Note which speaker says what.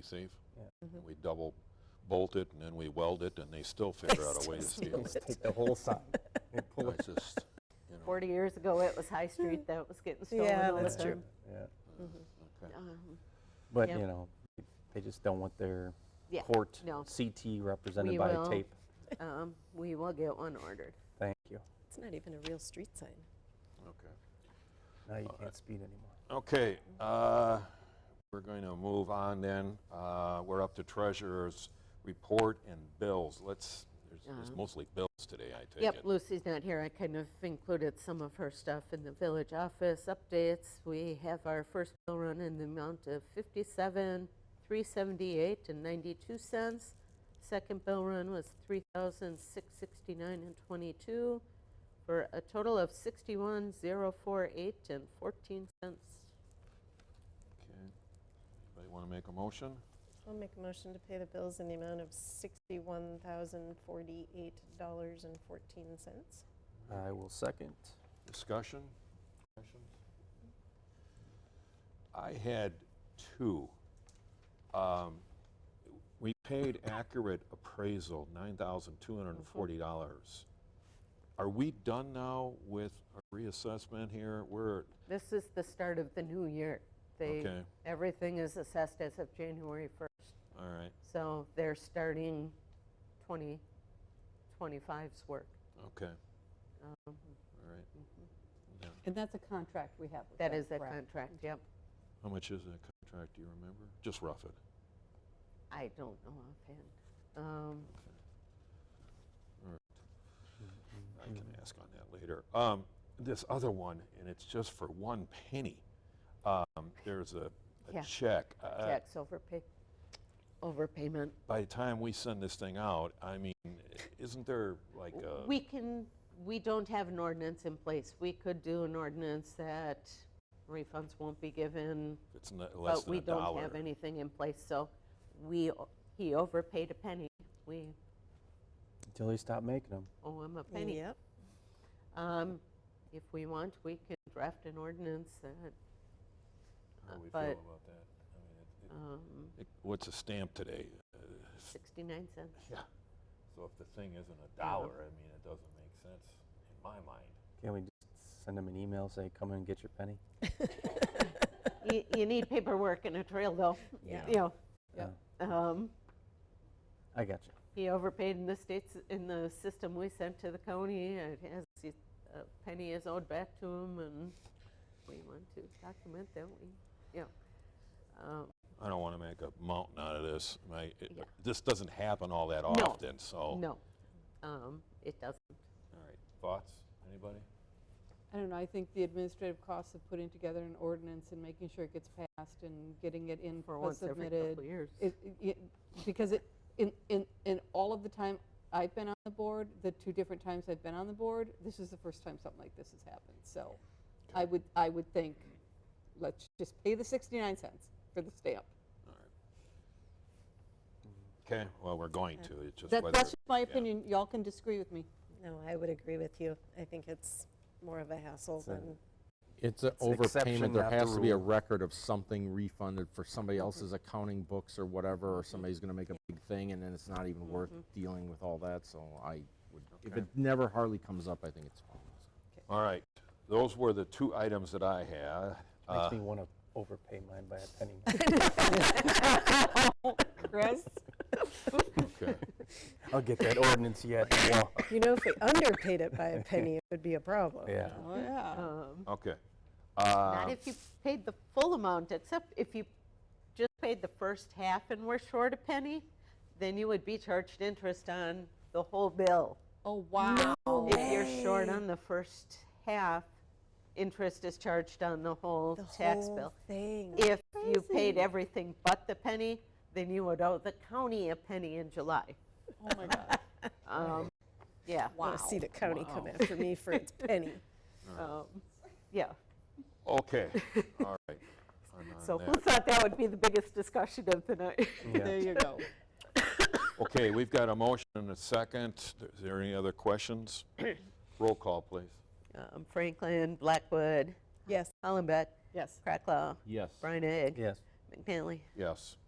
Speaker 1: be safe.
Speaker 2: Yeah.
Speaker 1: And we double bolt it and then we weld it and they still figure out a way to steal
Speaker 2: Let's
Speaker 1: it.
Speaker 2: take the whole side and pull it.
Speaker 1: It's just, you know,
Speaker 3: 40 years ago, it was High Street that was getting stolen
Speaker 4: Yeah,
Speaker 3: all the
Speaker 4: that's
Speaker 3: time.
Speaker 4: true.
Speaker 2: Yeah.
Speaker 1: uh,
Speaker 4: Mm-hmm.
Speaker 1: okay.
Speaker 3: Um,
Speaker 2: But,
Speaker 3: Yep.
Speaker 2: you know, they just don't want their
Speaker 3: Yeah,
Speaker 2: court
Speaker 3: no.
Speaker 2: CT represented
Speaker 3: We
Speaker 2: by
Speaker 3: will.
Speaker 2: tape.
Speaker 3: um, We will get one ordered.
Speaker 2: Thank you.
Speaker 4: It's not even a real street sign.
Speaker 1: Okay.
Speaker 2: Now you can't speed anymore.
Speaker 1: Okay, uh, we're going to move on then. Uh, We're up to treasurer's report and bills. Let's, there's- it's
Speaker 3: Uh-huh.
Speaker 1: mostly bills today, I take
Speaker 3: Yep,
Speaker 1: it.
Speaker 3: Lucy's not here. I kind of included some of her stuff in the village office updates. We have our first bill run in the amount of 57, 378 and 92 cents. Second bill run was 3,669 and 22 for a total of 61,048 and 14 cents.
Speaker 1: Okay. Anybody want to make a motion?
Speaker 4: I'll make a motion to pay the bills in the amount of $61,048.14.
Speaker 2: I will second.
Speaker 1: Discussion? Questions? I had two. Um, We paid accurate appraisal, $9,240. Are we done now with our reassessment here? We're,
Speaker 3: This is the start of the new year. They,
Speaker 1: Okay.
Speaker 3: everything is assessed as of January 1st.
Speaker 1: all right,
Speaker 3: So they're starting 2025's work.
Speaker 1: okay,
Speaker 3: Um,
Speaker 1: all right.
Speaker 5: And that's a contract we have with
Speaker 3: That
Speaker 5: them,
Speaker 3: is that
Speaker 5: correct?
Speaker 3: contract, yep.
Speaker 1: How much is that contract, do you remember? Just rough it.
Speaker 3: I don't know offhand. Um,
Speaker 1: I can
Speaker 3: Hmm.
Speaker 1: ask on that later. Um, this other one, and it's just for one penny. Um, there's a, a
Speaker 3: Yeah.
Speaker 1: check. Uh,
Speaker 3: Tax overpay, overpayment.
Speaker 1: By the time we send this thing out, I mean, isn't there like uh, a
Speaker 3: We can, we don't have an ordinance in place. We could do an ordinance that refunds won't be given
Speaker 1: it's n- less
Speaker 3: But
Speaker 1: than
Speaker 3: we
Speaker 1: a dollar?
Speaker 3: don't have anything in place, so we, o- he overpaid a penny. We
Speaker 2: Until they stop making them.
Speaker 3: owe him a penny.
Speaker 4: Yep.
Speaker 3: Um, If we want, we can draft an ordinance that,
Speaker 1: How do we
Speaker 3: but-
Speaker 1: feel about that? I mean, it- it-
Speaker 3: um,
Speaker 1: it- what's a stamp today?
Speaker 3: 69 cents.
Speaker 1: So if the thing isn't a dollar, I mean, it doesn't make sense in my mind.
Speaker 2: Can't we just send them an email, say, come and get your penny?
Speaker 3: You- You need paperwork and a trail, though.
Speaker 4: Yeah.
Speaker 3: You know, um,
Speaker 2: I got you.
Speaker 3: he overpaid in the states, in the system we sent to the county. It has, a penny is owed back to him, and we want to document that, we, yeah. Um,
Speaker 1: I don't want to make a mountain out of this. My, it-
Speaker 3: Yeah.
Speaker 1: this doesn't happen all that
Speaker 3: No.
Speaker 1: often, so.
Speaker 3: No, um, it doesn't.
Speaker 1: All right, thoughts, anybody?
Speaker 5: I don't know, I think the administrative costs of putting together an ordinance and making sure it gets passed and getting it in
Speaker 3: For
Speaker 5: uh,
Speaker 3: once every
Speaker 5: submitted.
Speaker 3: couple years.
Speaker 5: It, it- because it, in, in, in all of the time I've been on the board, the two different times I've been on the board, this is the first time something like this has happened, so I would, I would think, let's just pay the sixty-nine cents for the stamp.
Speaker 1: Okay, well, we're going to, it's just
Speaker 5: That,
Speaker 1: whether.
Speaker 5: that's just my
Speaker 1: yeah.
Speaker 5: opinion, y'all can disagree with me.
Speaker 4: No, I would agree with you. I think it's more of a hassle
Speaker 2: a-
Speaker 4: than,
Speaker 6: It's an
Speaker 2: an exception,
Speaker 6: overpayment. There
Speaker 2: not the
Speaker 6: has to be a
Speaker 2: rule. Mm-hmm.
Speaker 6: record of something refunded for somebody else's accounting books or whatever, or somebody's gonna make a big thing and then it's not even worth
Speaker 2: Mm-hmm.
Speaker 6: dealing with all that, so I would, if
Speaker 1: Okay.
Speaker 6: it never hardly comes up, I think it's fine.
Speaker 1: All right, those were the two items that I had. Uh,
Speaker 2: Makes me want to overpay mine by a penny.
Speaker 5: Chris?
Speaker 1: Okay.
Speaker 2: I'll get that ordinance yet. Well,
Speaker 4: you know, if we underpaid it by a penny, it would be a problem.
Speaker 2: Yeah.
Speaker 5: Oh, yeah.
Speaker 3: Um,
Speaker 1: Okay.
Speaker 3: Not
Speaker 1: Uh,
Speaker 3: if you paid the full amount, except if you just paid the first half and were short a penny, then you would be charged interest on the whole bill.
Speaker 5: Oh, wow.
Speaker 3: If you're short on the first half, interest is charged on the whole
Speaker 4: The
Speaker 3: tax
Speaker 4: whole
Speaker 3: bill.
Speaker 4: thing.
Speaker 3: If you paid everything but the penny, then you would owe the county a penny in July.
Speaker 5: Oh, my God.
Speaker 3: Um, Yeah.
Speaker 4: I want to see the county come after me for its penny.
Speaker 3: um, Yeah.
Speaker 1: Uh, Okay, all right. I'm on
Speaker 3: So who
Speaker 1: that.
Speaker 3: thought that would be the biggest discussion of the night?
Speaker 5: There you go.
Speaker 1: Okay, we've got a motion and a second. Is there any other questions? Roll call, please.
Speaker 3: Um, Franklin, Blackwood,
Speaker 4: Yes.
Speaker 3: Hollenbeck,
Speaker 5: Yes.
Speaker 3: Cracklaw,
Speaker 6: Yes.
Speaker 3: Brian Egg,
Speaker 2: Yes.
Speaker 3: McNally.
Speaker 1: Yes.